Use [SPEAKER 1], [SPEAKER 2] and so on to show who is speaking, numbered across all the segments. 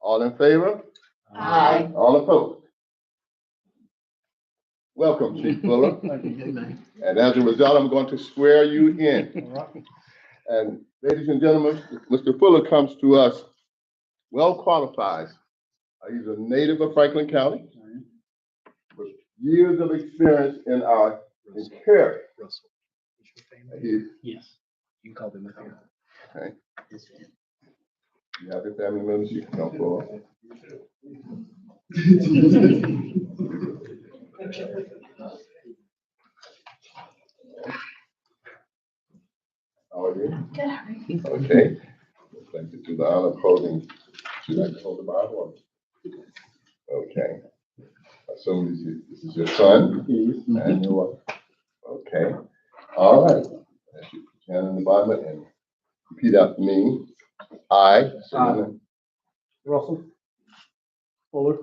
[SPEAKER 1] All in favor?
[SPEAKER 2] Aye.
[SPEAKER 1] All opposed? Welcome, Chief Fuller. And as a result, I'm going to swear you in. And ladies and gentlemen, Mr. Fuller comes to us well qualified. Uh, He's a native of Franklin County with years of experience in our in care.
[SPEAKER 3] Russell. Is your family?
[SPEAKER 1] He
[SPEAKER 3] Yes. You called him. up here.
[SPEAKER 1] Okay.
[SPEAKER 3] Yes, yes.
[SPEAKER 1] You have your family members, you can come forward. How are you? Good. Okay. Thank you to the honor of holding, she like to hold the Bible. Okay. So this is, this is your son? And your wife? Okay, all right. As you put your hand in the Bible and repeat after me. I.
[SPEAKER 4] Aye. Russell. Fuller.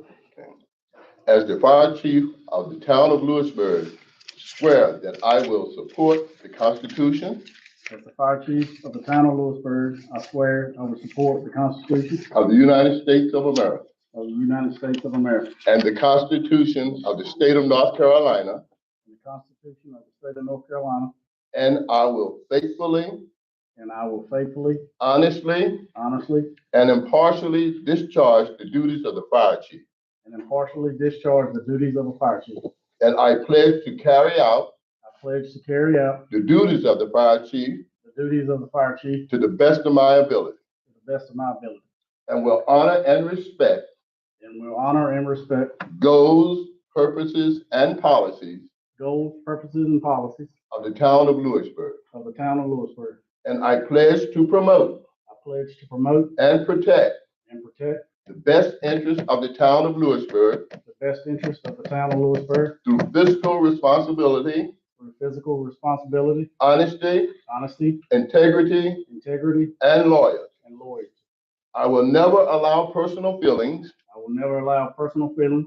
[SPEAKER 1] As the fire chief of the town of Lewisburg, swear that I will support the Constitution
[SPEAKER 4] As the fire chief of the town of Lewisburg, I swear I will support the Constitution
[SPEAKER 1] of the United States of America
[SPEAKER 4] of the United States of America
[SPEAKER 1] and the Constitution of the state of North Carolina,
[SPEAKER 4] and the Constitution of the state of North Carolina,
[SPEAKER 1] and I will faithfully,
[SPEAKER 4] and I will faithfully,
[SPEAKER 1] honestly,
[SPEAKER 4] honestly,
[SPEAKER 1] and impartially discharge the duties of the fire chief.
[SPEAKER 4] and impartially discharge the duties of a fire chief.
[SPEAKER 1] And I pledge to carry out
[SPEAKER 4] I pledge to carry out
[SPEAKER 1] the duties of the fire chief
[SPEAKER 4] the duties of the fire chief
[SPEAKER 1] to the best of my ability
[SPEAKER 4] to the best of my ability,
[SPEAKER 1] and will honor and respect
[SPEAKER 4] and will honor and respect
[SPEAKER 1] goals, purposes, and policies
[SPEAKER 4] goals, purposes, and policies
[SPEAKER 1] of the town of Lewisburg.
[SPEAKER 4] of the town of Lewisburg.
[SPEAKER 1] And I pledge to promote
[SPEAKER 4] I pledge to promote
[SPEAKER 1] and protect
[SPEAKER 4] and protect
[SPEAKER 1] the best interests of the town of Lewisburg
[SPEAKER 4] the best interests of the town of Lewisburg
[SPEAKER 1] through fiscal responsibility,
[SPEAKER 4] through physical responsibility,
[SPEAKER 1] honesty,
[SPEAKER 4] honesty,
[SPEAKER 1] integrity,
[SPEAKER 4] integrity,
[SPEAKER 1] and loyalty.
[SPEAKER 4] and loyalty.
[SPEAKER 1] I will never allow personal feelings
[SPEAKER 4] I will never allow personal feelings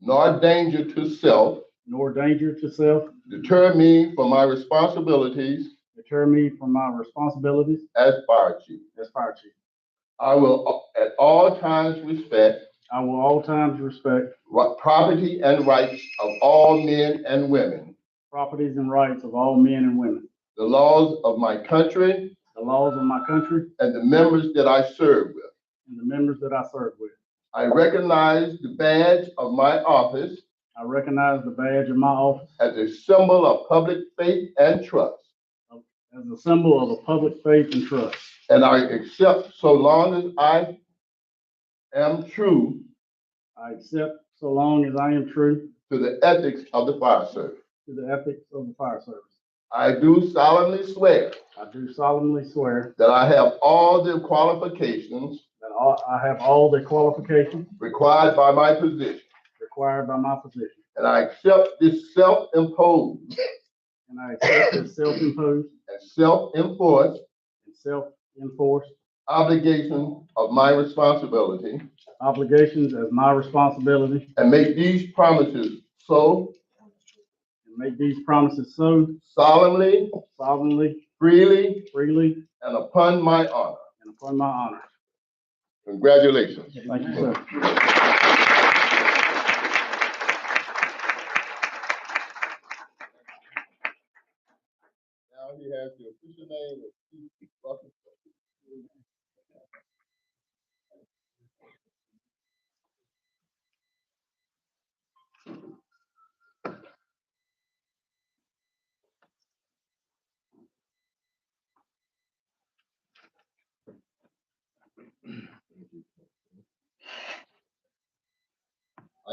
[SPEAKER 1] nor danger to self
[SPEAKER 4] nor danger to self
[SPEAKER 1] deter me from my responsibilities
[SPEAKER 4] deter me from my responsibilities
[SPEAKER 1] as fire chief.
[SPEAKER 4] as fire chief.
[SPEAKER 1] I will uh, at all times respect
[SPEAKER 4] I will all times respect
[SPEAKER 1] ri- property and rights of all men and women,
[SPEAKER 4] properties and rights of all men and women,
[SPEAKER 1] the laws of my country,
[SPEAKER 4] the laws of my country,
[SPEAKER 1] and the members that I serve with.
[SPEAKER 4] and the members that I serve with.
[SPEAKER 1] I recognize the badge of my office
[SPEAKER 4] I recognize the badge of my office
[SPEAKER 1] as a symbol of public faith and trust,
[SPEAKER 4] as a symbol of a public faith and trust,
[SPEAKER 1] and I accept so long as I am true
[SPEAKER 4] I accept so long as I am true
[SPEAKER 1] to the ethics of the fire service.
[SPEAKER 4] to the ethics of the fire service.
[SPEAKER 1] I do solemnly swear
[SPEAKER 4] I do solemnly swear
[SPEAKER 1] that I have all the qualifications
[SPEAKER 4] that all- I have all the qualifications
[SPEAKER 1] required by my position,
[SPEAKER 4] required by my position.
[SPEAKER 1] and I accept this self-imposed
[SPEAKER 4] And I accept this self-imposed
[SPEAKER 1] and self-enforced
[SPEAKER 4] and self-enforced
[SPEAKER 1] obligation of my responsibility,
[SPEAKER 4] obligations as my responsibility
[SPEAKER 1] and make these promises so
[SPEAKER 4] and make these promises so
[SPEAKER 1] solemnly,
[SPEAKER 4] solemnly,
[SPEAKER 1] freely,
[SPEAKER 4] freely,
[SPEAKER 1] and upon my honor.
[SPEAKER 4] and upon my honor.
[SPEAKER 1] Congratulations.
[SPEAKER 4] Thank you, sir.
[SPEAKER 1] Now he has the official name of Chief Bucket.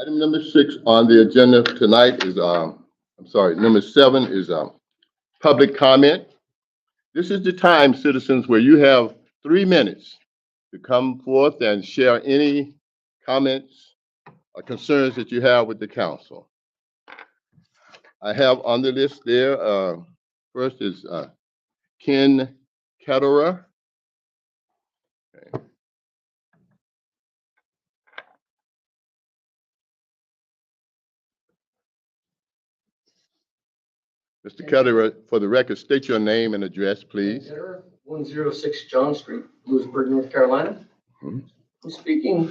[SPEAKER 1] Item number six on the agenda tonight is, um, I'm sorry, number seven is, um, public comment. This is the time, citizens, where you have three minutes to come forth and share any comments or concerns that you have with the council. I have on the list there, uh, first is, uh, Ken Ketterer. Mr. Ketterer, for the record, state your name and address, please.
[SPEAKER 5] One zero six John Street, Lewisburg, North Carolina.
[SPEAKER 1] Mhm.
[SPEAKER 2] Speaking